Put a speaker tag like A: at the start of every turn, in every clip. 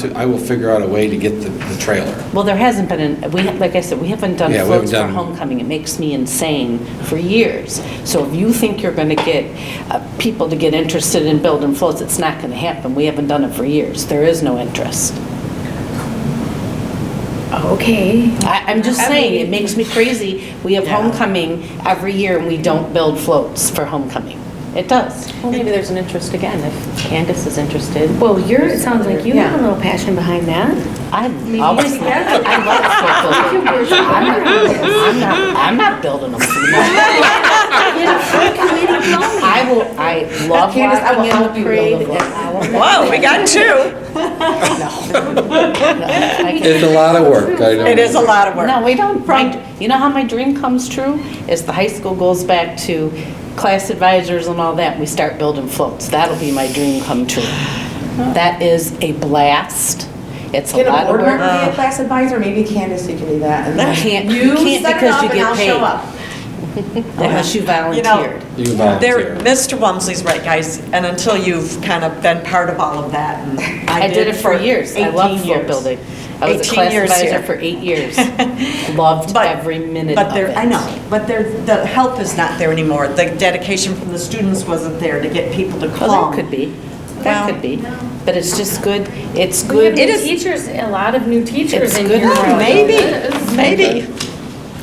A: So I will figure out a way to get the, the trailer.
B: Well, there hasn't been, an- we, like I said, we haven't done
A: Yeah, we haven't
B: floats for
A: done-
B: homecoming. It makes me insane for years. So if you think you're going to get uh, people to get interested in building floats, it's not going to happen. We haven't done it for years. There is no interest.
C: Oh, Okay.
B: I, I'm just
C: I
B: saying, it
C: mean-
B: makes me crazy. We have
C: Yeah.
B: homecoming every year and we don't build floats for homecoming. It does.
D: Well, maybe there's an interest again, if Candace is interested.
C: Well, you're, it sounds like you have a
D: Yeah.
C: little passion behind that.
B: I
C: Maybe
B: always,
C: together.
B: I love float building. I'm not, I'm not building them. I will, I love
D: Candace, I will
B: walking in
D: help
B: the
D: you
B: parade.
D: build a
B: and I will-
E: Whoa, we got two.
B: I can-
A: It's a lot of work, I know.
E: It is a lot of work.
B: No, we don't, my, you know how my dream comes true? Is the high school goes back to class advisors and all that, and we start building floats. That'll be my dream come true. That is a blast. It's a
F: Get a
B: lot of
F: board member,
B: work.
F: to be a class advisor, maybe Candace, you can do that. and then
B: Can't- you can't
F: set it
B: because
F: up
B: you
F: and
B: get
F: I'll
B: paid.
F: show up.
B: Unless you
E: You
B: volunteered.
E: know,
A: You
E: There,
A: volunteer.
E: Mr. Wamsley's right, guys, and until you've kind of been part of all of that, and
B: I did it for years. I love
E: 18
B: float
E: years.
B: building. I was a
E: 18
B: class
E: years
B: advisor
E: here.
B: for eight years. Loved
E: But-
B: every minute
E: but
B: of
E: there-
B: it.
E: I know, but there, the help is not there anymore. The dedication from the students wasn't there to get people to come.
B: Well, that could be. That
E: Well-
B: could be. But it's just good, it's
C: We have
B: good.
C: new teachers, a lot of new teachers
B: It's
C: in
B: good
C: here.
B: for
E: Oh, Maybe, maybe.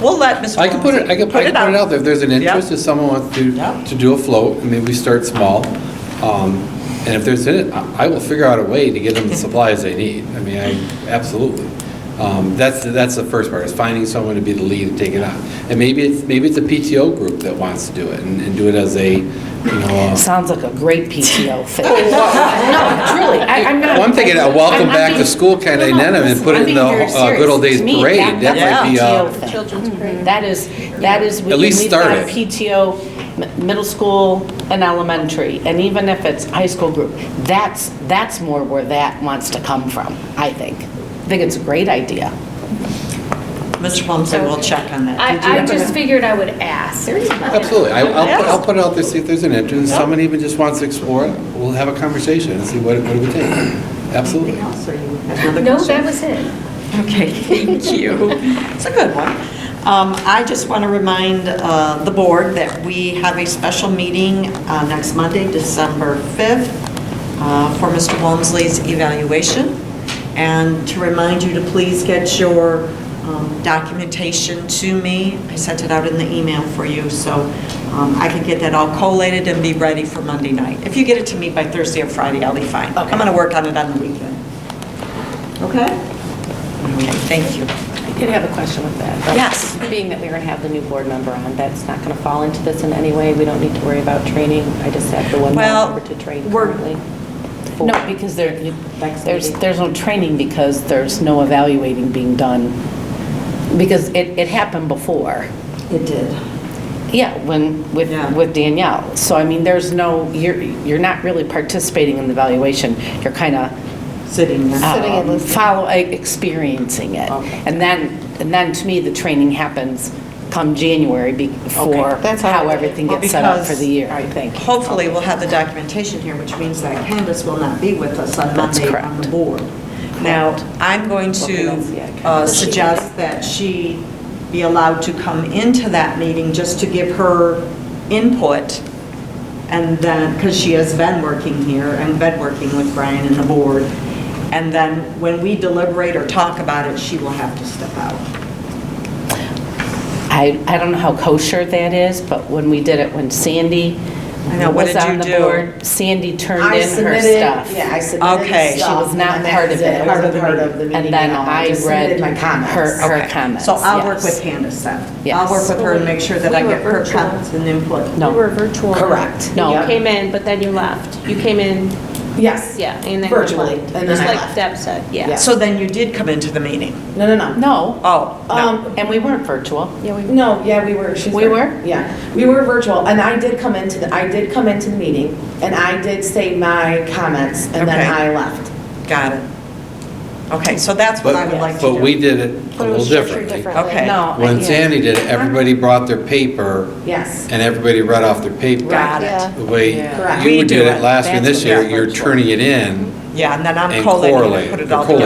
E: We'll let Mr.
A: I can put it, I can, I can put it out there, if there's an
E: Yep.
A: interest, if someone wants to,
E: Yep.
A: to do a float, I mean, we start small. Um, And if there's, in- I I will figure out a way to get them the supplies they need, I mean, I, absolutely. Um, That's, that's the first part, is finding someone to be the lead and take it on. And maybe it's, maybe it's a PTO group that wants to do it, and and do it as a, you know, a
B: Sounds like a great PTO thing. No, truly, I- I'm not.
A: Well, I'm thinking a welcome
B: I'm- I'm
A: back to
B: being-
A: school kind of
B: No, no,
A: incentive and
B: listen,
A: put it
B: I'm
A: in
B: being
A: the
B: very
A: uh, good old days
B: serious. To me,
A: parade. That might be,
B: that's
A: uh,
B: a PTO thing. Mm-hmm. That is, that is. we-
A: At least
B: we've got
A: start it.
B: PTO, m- middle school and elementary, and even if it's high school group, that's, that's more where that wants to come from, I think. I think it's a great idea.
E: Mr. Wamsley will check on that. Did you
C: I, I
E: have
C: just
E: a-
C: figured I would ask.
A: absolutely. I- I'll, put-
E: Yes.
A: I'll put it out there, see if there's an interest. Someone even just wants to explore it, we'll have a conversation and see what it what it would take. Absolutely.
E: Anything else, or you have another
C: No,
E: question?
C: that was it.
E: Okay, thank you. It's a good one. Um, I just want to remind uh, the board that we have a special meeting uh, next Monday, December 5th, uh, for Mr. Walmsley's evaluation, and to remind you to please get your um, documentation to me. I sent it out in the email for you, so um, I can get that all collated and be ready for Monday night. If you get it to me by Thursday or Friday, I'll be fine. I'm going to work on it on the weekend. Okay? Okay, thank you.
D: I did have a question with that. though.
E: Yes.
D: Being that we're going to have the new board member on, that's not going to fall into this in any way. We don't need to worry about training. I just have the one
E: Well,
D: member to train
E: we're-
D: currently.
B: No, because there, you-
D: Next
B: there's,
D: meeting.
B: there's no training because there's no evaluating being done. Because it, it happened before.
E: It did.
B: Yeah, when, with,
E: Yeah.
B: with Danielle. So I mean, there's no, you're, you're not really participating in the evaluation. You're kind of
E: Sitting there.
B: Sitting and listening. Follow, e- experiencing it. And then, and then to me, the training happens come January be- for how everything gets set up for the year.
D: Um,
E: Because Hopefully, we'll have the documentation here, which means that Candace will not be with us on
B: That's
E: Monday on the
B: correct.
E: board. Now, I'm going to uh, suggest that she be allowed to come into that meeting just to give her input, and then, because she has been working here and been working with Brian and the board, and then when we deliberate or talk about it, she will have to step out.
B: I, I don't know how kosher that is, but when we did it, when Sandy
E: I know, what
B: was
E: did you
B: on the
E: do?
B: board, Sandy turned
F: I
B: in her
F: submitted-
B: stuff.
F: Yeah, I submitted
E: Okay.
B: She
E: She
B: was
F: stuff,
B: not
F: and that
B: part of
F: was
B: it. It
F: I wasn't
B: wasn't
F: part of the meeting.
B: And then
F: at all.
B: I
F: just
B: read
F: submitted my comments.
B: her, her
E: Okay.
B: comments.
E: So I'll work
B: yes.
E: with Candace then.
B: Yes.
E: I'll work with her and make sure that I
C: We were
E: get her
C: virtual.
E: comments and input.
B: No.
C: virtual.
F: Correct.
B: No.
G: You came in, but then you left. You came in,
F: Yes.
G: yeah, and then you left.
F: Virtually, and then
G: Just
F: I
G: like
F: left.
G: Deb said, yeah.
F: Yeah.
E: So then you did come into the meeting?
F: No, no, no.
B: No,
E: Oh, no.
F: Um,
B: and we weren't virtual.
F: No, yeah, we were. she's
B: We were?
F: right. Yeah, we were virtual, and I did come into, the. I did come into the meeting, and I did say my comments, and
E: Okay.
F: then I left.
E: Got it. Okay, so that's what I would like
A: But,
E: to do.
A: but we did it a little differently.
E: Okay.
B: No. I
A: When
B: can't.
A: Sandy did it, everybody brought their paper
F: Yes,
A: and everybody read off their paper.
E: Got it.
A: The way
F: Correct.
A: you
E: We do
A: did
E: it.
A: it last year and
E: That's
A: this
E: what
A: year,
E: got
A: you're
E: virtual.
A: turning it in
E: Yeah, and then I'm
A: And
E: collating and
A: correlate,
E: put it
A: the
E: all together.